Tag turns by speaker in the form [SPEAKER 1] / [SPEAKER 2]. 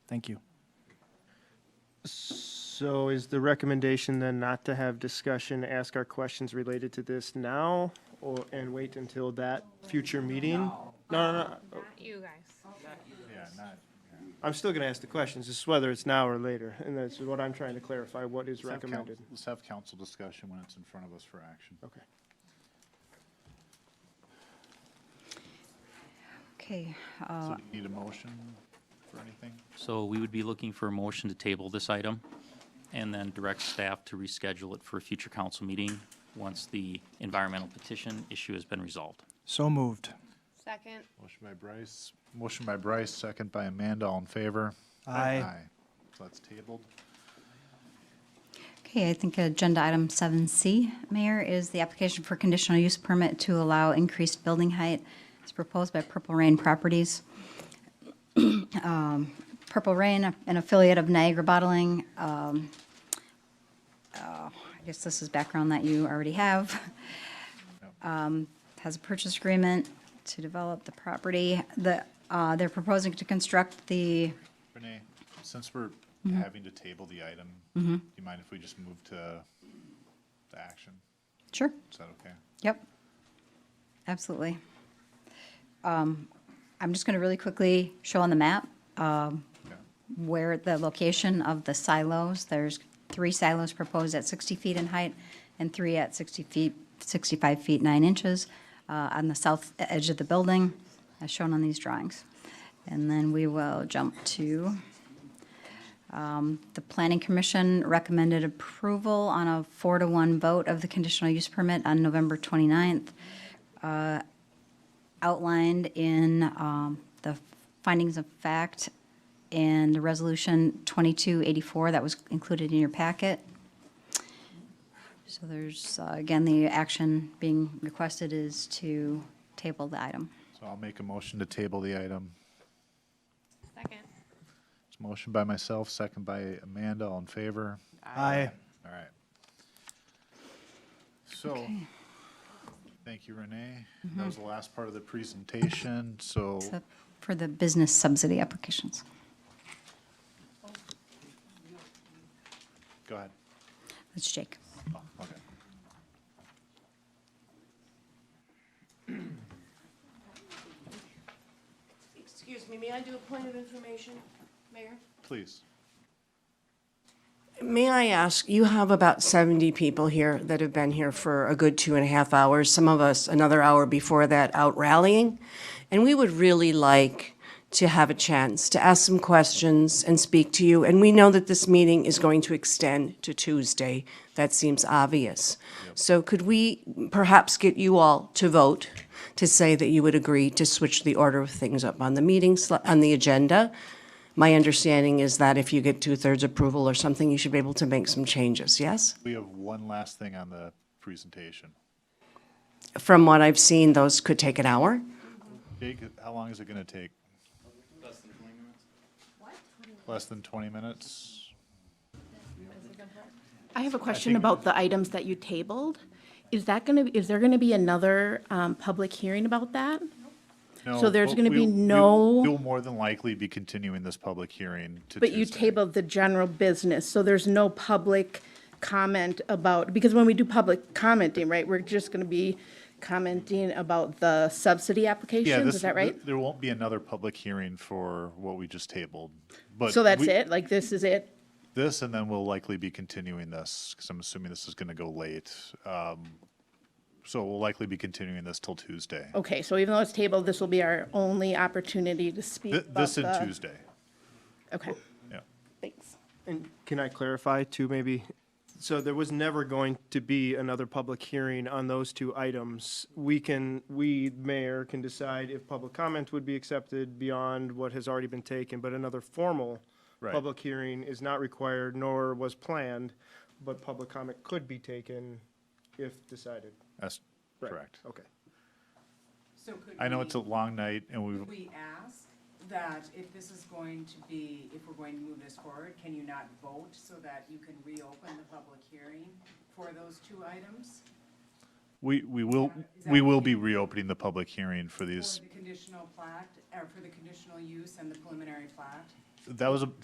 [SPEAKER 1] Thank you.
[SPEAKER 2] So is the recommendation then not to have discussion, ask our questions related to this now, or, and wait until that future meeting? No, no, no,
[SPEAKER 3] Not you guys.
[SPEAKER 2] I'm still gonna ask the questions, it's whether it's now or later, and that's what I'm trying to clarify, what is
[SPEAKER 4] Let's have coun-
[SPEAKER 2] recommended.
[SPEAKER 4] Let's have council discussion when it's in front of us for action.
[SPEAKER 2] Okay.
[SPEAKER 5] Okay,
[SPEAKER 4] So do you need a motion for anything?
[SPEAKER 6] So we would be looking for a motion to table this item and then direct staff to reschedule it for a future council meeting once the environmental petition issue has been resolved.
[SPEAKER 1] So moved.
[SPEAKER 3] Second.
[SPEAKER 4] Motion by Bryce, motion by Bryce, second by Amanda, all in favor?
[SPEAKER 1] Aye.
[SPEAKER 4] So that's tabled.
[SPEAKER 5] okay, I think agenda item seven C, Mayor, is the application for conditional use permit to allow increased building height as proposed by Purple Rain Properties. Um, Purple Rain, an affiliate of Niagara Bottling, um, uh, I guess this is background that you already have. Um, Has a purchase agreement to develop the property. The, uh, they're proposing to construct the
[SPEAKER 4] Renee, since we're having to table the item, do you mind if we just move to the action?
[SPEAKER 5] Sure.
[SPEAKER 4] Is that okay?
[SPEAKER 5] Yep, absolutely. Um, I'm just going to really quickly show on the map um,
[SPEAKER 4] Okay.
[SPEAKER 5] where the location of the silos. There's three silos proposed at 60 feet in height and three at 60 feet, 65 feet 9 inches uh, on the south edge of the building, as shown on these drawings. And then we will jump to, um, the Planning Commission recommended approval on a four to one vote of the conditional use permit on November 29th outlined in um, the findings of fact and the resolution 2284 that was included in your packet. So there's, uh, again, the action being requested is to table the item.
[SPEAKER 4] So I'll make a motion to table the item.
[SPEAKER 3] Second.
[SPEAKER 4] It's a motion by myself, second by Amanda, all in favor?
[SPEAKER 1] Aye.
[SPEAKER 4] All right. So,
[SPEAKER 5] Okay.
[SPEAKER 4] thank you, Renee.
[SPEAKER 7] Mm-hmm.
[SPEAKER 4] That was the last part of the presentation, so
[SPEAKER 5] So For the business subsidy applications.
[SPEAKER 4] go ahead.
[SPEAKER 5] That's Jake.
[SPEAKER 4] Oh, Okay.
[SPEAKER 8] Excuse me, may I do a point of information, Mayor?
[SPEAKER 4] Please.
[SPEAKER 8] May I ask, you have about 70 people here that have been here for a good two and a half hours, some of us another hour before that out rallying. And we would really like to have a chance to ask some questions and speak to you. And we know that this meeting is going to extend to Tuesday. That seems obvious. So could we perhaps get you all to vote to say that you would agree to switch the order of things up on the meeting, sli- on the agenda? My understanding is that if you get two-thirds approval or something, you should be able to make some changes, yes?
[SPEAKER 4] We have one last thing on the presentation.
[SPEAKER 8] From what I've seen, those could take an hour.
[SPEAKER 4] Jake, how long is it gonna take? Less than twenty minutes?
[SPEAKER 7] I have a question about the items that you tabled. Is that going to, is there going to be another um, public hearing about that?
[SPEAKER 4] No,
[SPEAKER 7] So there's
[SPEAKER 4] but
[SPEAKER 7] gonna
[SPEAKER 4] we-
[SPEAKER 7] be
[SPEAKER 4] we-
[SPEAKER 7] no-
[SPEAKER 4] You'll more than likely be continuing this public hearing to
[SPEAKER 7] But you
[SPEAKER 4] Tuesday.
[SPEAKER 7] tabled the general business, so there's no public comment about, because when we do public commenting, right, we're just going to be commenting about the subsidy
[SPEAKER 4] Yeah,
[SPEAKER 7] applications,
[SPEAKER 4] this-
[SPEAKER 7] is that right?
[SPEAKER 4] th- There won't be another public hearing for what we just tabled, but.
[SPEAKER 7] So that's
[SPEAKER 4] we-
[SPEAKER 7] it? Like, this is it?
[SPEAKER 4] This, and then we'll likely be continuing this, because I'm assuming this is gonna go late. Um, So we'll likely be continuing this till Tuesday.
[SPEAKER 7] Okay, so even though it's tabled, this will be our only opportunity to speak
[SPEAKER 4] Th-
[SPEAKER 7] about
[SPEAKER 4] This and
[SPEAKER 7] the-
[SPEAKER 4] Tuesday,
[SPEAKER 7] Okay,
[SPEAKER 4] yeah.
[SPEAKER 7] thanks.
[SPEAKER 2] And can I clarify too, maybe? So there was never going to be another public hearing on those two items. We can, we, mayor, can decide if public comment would be accepted beyond what has already been taken, but another formal
[SPEAKER 4] Right.
[SPEAKER 2] public hearing is not required nor was planned, but public comment could be taken if decided.
[SPEAKER 4] That's
[SPEAKER 2] Right,
[SPEAKER 4] correct.
[SPEAKER 2] Okay.
[SPEAKER 9] So could
[SPEAKER 4] I know
[SPEAKER 9] we-
[SPEAKER 4] it's a long night, and we,
[SPEAKER 9] Could we ask that if this is going to be, if we're going to move this forward, can you not vote so that you can reopen the public hearing for those two items?
[SPEAKER 4] we, we will,
[SPEAKER 9] Is that
[SPEAKER 4] we will
[SPEAKER 9] okay?
[SPEAKER 4] be reopening the public hearing for
[SPEAKER 9] For
[SPEAKER 4] these.
[SPEAKER 9] uh, the conditional plat, or for the conditional use and the preliminary plat?
[SPEAKER 4] That was a,